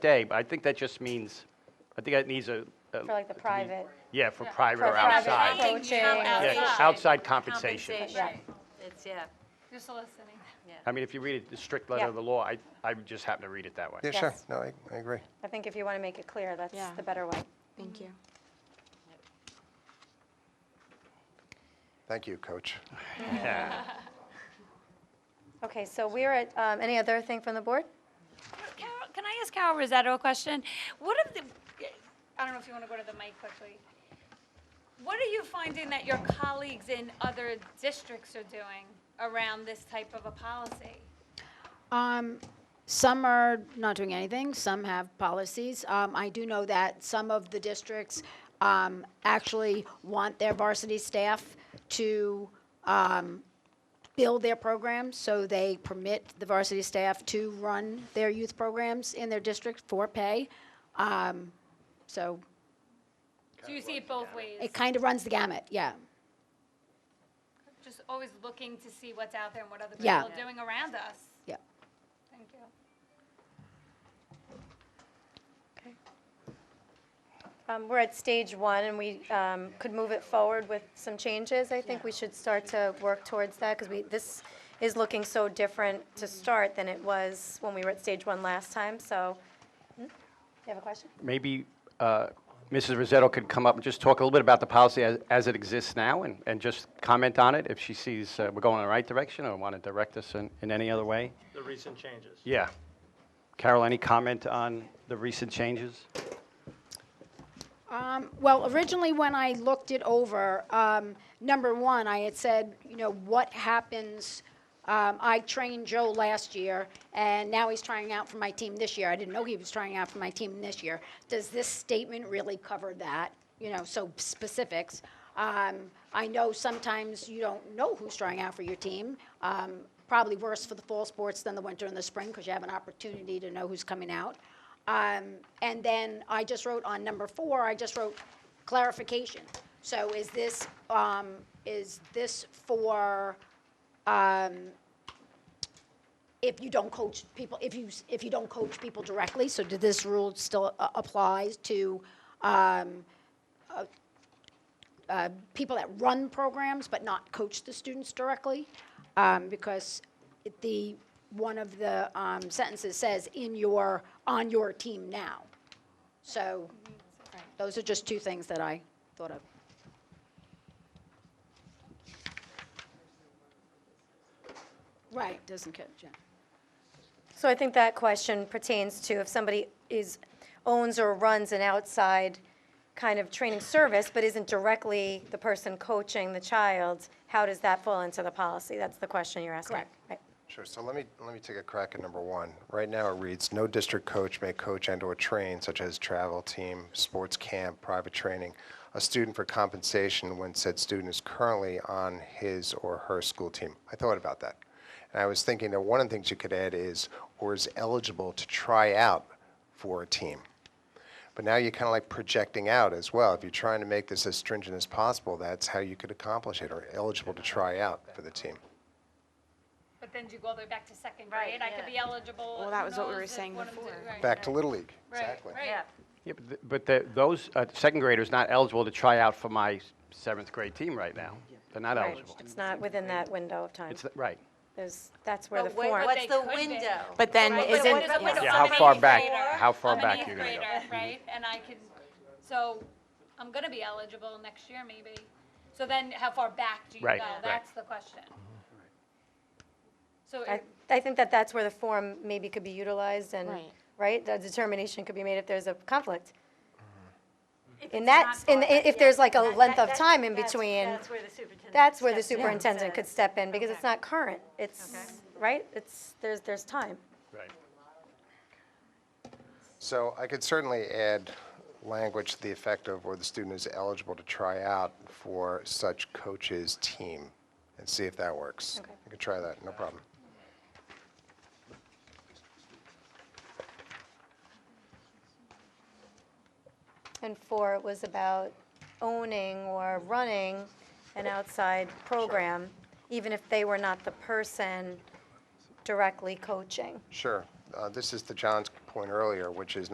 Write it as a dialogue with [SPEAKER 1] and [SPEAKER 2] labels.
[SPEAKER 1] day, but I think that just means, I think that needs a, a-
[SPEAKER 2] For like the private,
[SPEAKER 1] yeah, for private
[SPEAKER 2] for
[SPEAKER 1] or
[SPEAKER 2] private
[SPEAKER 1] outside.
[SPEAKER 2] coaching.
[SPEAKER 1] Yeah, outside compensation.
[SPEAKER 3] It's, yeah,
[SPEAKER 4] Just listening.
[SPEAKER 1] I mean, if you read it, the strict letter of the law, I, I just happen to read it that way.
[SPEAKER 5] Yeah, sure.
[SPEAKER 2] Yes.
[SPEAKER 5] No, I, I agree.
[SPEAKER 2] I think if you want to make it clear, that's
[SPEAKER 6] Yeah.
[SPEAKER 2] the better way.
[SPEAKER 6] Thank you.
[SPEAKER 5] Thank you, Coach.
[SPEAKER 1] Yeah.
[SPEAKER 2] Okay, so we're at, um, any other thing from the board?
[SPEAKER 4] Carol, can I ask Carol Rosetto a question? What are the, I don't know if you want to go to the mic quickly. What are you finding that your colleagues in other districts are doing around this type of a policy?
[SPEAKER 6] Um, some are not doing anything, some have policies. Um, I do know that some of the districts, um, actually want their varsity staff to, um, build their programs, so they permit the varsity staff to run their youth programs in their district for pay. Um, so
[SPEAKER 4] Do you see it both ways?
[SPEAKER 6] it kind of runs the gamut, yeah.
[SPEAKER 4] Just always looking to see what's out there and what other people
[SPEAKER 6] Yeah.
[SPEAKER 4] are doing around us.
[SPEAKER 6] Yeah.
[SPEAKER 4] Thank you.
[SPEAKER 2] Um, We're at stage one, and we um, could move it forward with some changes. I think we should start to work towards that, because we, this is looking so different to start than it was when we were at stage one last time, so. Hmm? You have a question?
[SPEAKER 1] Maybe uh, Mrs. Rosetto could come up and just talk a little bit about the policy as, as it exists now and, and just comment on it if she sees uh, we're going in the right direction or want to direct us in, in any other way.
[SPEAKER 7] the recent changes.
[SPEAKER 1] Yeah. Carol, any comment on the recent changes?
[SPEAKER 6] Um, Well, originally, when I looked it over, um, number one, I had said, you know, what happens, um, I trained Joe last year, and now he's trying out for my team this year. I didn't know he was trying out for my team this year. Does this statement really cover that? You know, so specifics. Um, I know sometimes you don't know who's trying out for your team. Um, Probably worse for the fall sports than the winter and the spring, because you have an opportunity to know who's coming out. Um, And then I just wrote on number four, I just wrote clarification. So is this, um, is this for, um, if you don't coach people, if you, s- if you don't coach people directly? So did this rule still a- applies to um, uh, uh, people that run programs but not coach the students directly? Um, Because it- the, one of the um, sentences says, in your, on your team now. So those are just two things that I thought of. Right, doesn't catch, yeah.
[SPEAKER 2] So I think that question pertains to if somebody is, owns or runs an outside kind of training service, but isn't directly the person coaching the child, how does that fall into the policy? That's the question you're asking.
[SPEAKER 6] Correct.
[SPEAKER 2] Right.
[SPEAKER 5] Sure, so let me, let me take a crack at number one. Right now, it reads, "No district coach may coach and/or train, such as travel team, sports camp, private training, a student for compensation when said student is currently on his or her school team." I thought about that. And I was thinking that one of the things you could add is, "or is eligible to try out for a team." But now you're kind of like projecting out as well. If you're trying to make this as stringent as possible, that's how you could accomplish it, or eligible to try out for the team.
[SPEAKER 4] But then do you go all the way back to second grade? I could be eligible.
[SPEAKER 6] Well,
[SPEAKER 4] who
[SPEAKER 6] that was what we
[SPEAKER 4] knows
[SPEAKER 6] were
[SPEAKER 4] if
[SPEAKER 6] saying
[SPEAKER 4] one of them do-
[SPEAKER 6] before.
[SPEAKER 4] right,
[SPEAKER 5] Back to Little League,
[SPEAKER 4] right,
[SPEAKER 5] exactly.
[SPEAKER 4] right.
[SPEAKER 3] yeah.
[SPEAKER 1] Yeah, but, th- but the, those uh, second graders not eligible to try out for my s- seventh grade team right now. They're not
[SPEAKER 2] Right.
[SPEAKER 1] eligible.
[SPEAKER 2] It's not within that window of time.
[SPEAKER 1] It's th- right.
[SPEAKER 2] There's, that's where the
[SPEAKER 3] But wait,
[SPEAKER 2] form.
[SPEAKER 4] what-
[SPEAKER 3] What's
[SPEAKER 4] they
[SPEAKER 3] the
[SPEAKER 4] could be.
[SPEAKER 3] window?
[SPEAKER 8] But then
[SPEAKER 4] Right, but
[SPEAKER 8] isn't,
[SPEAKER 4] what is a window?
[SPEAKER 1] Yeah,
[SPEAKER 4] I'm
[SPEAKER 1] how
[SPEAKER 4] an
[SPEAKER 1] far
[SPEAKER 4] eighth
[SPEAKER 1] back-
[SPEAKER 4] grader,
[SPEAKER 1] how far
[SPEAKER 4] I'm an
[SPEAKER 1] back
[SPEAKER 4] eighth
[SPEAKER 1] you're gonna go.
[SPEAKER 4] grader, Right, and I can, so I'm gonna be eligible next year maybe. So then how far back do you
[SPEAKER 1] Right,
[SPEAKER 4] go?
[SPEAKER 1] right.
[SPEAKER 4] That's the question. So
[SPEAKER 2] I,
[SPEAKER 4] it-
[SPEAKER 2] I think that that's where the form maybe could be utilized and,
[SPEAKER 6] Right.
[SPEAKER 2] right? The determination could be made if there's a conflict.
[SPEAKER 3] If
[SPEAKER 2] In
[SPEAKER 3] it's
[SPEAKER 2] that,
[SPEAKER 3] not
[SPEAKER 2] s- in,
[SPEAKER 3] far
[SPEAKER 2] the-
[SPEAKER 3] back,
[SPEAKER 2] if
[SPEAKER 3] yeah.
[SPEAKER 2] there's like a
[SPEAKER 3] That-
[SPEAKER 2] length
[SPEAKER 3] that-
[SPEAKER 2] of time in
[SPEAKER 3] that's-
[SPEAKER 2] between,
[SPEAKER 3] That's where the superintendent.
[SPEAKER 2] that's where the
[SPEAKER 3] steps in.
[SPEAKER 2] superintendent could step in, because it's
[SPEAKER 3] Okay.
[SPEAKER 2] not current. It's, right? It's, there's, there's time.
[SPEAKER 1] Right.
[SPEAKER 5] So I could certainly add language to the effect of where the student is eligible to try out for such coach's team and see if that works.
[SPEAKER 2] Okay.
[SPEAKER 5] I could try that, no problem.
[SPEAKER 2] And four was about owning or running an outside program, even if they were not the person directly coaching.
[SPEAKER 5] Sure. Uh, This is to John's point earlier, which is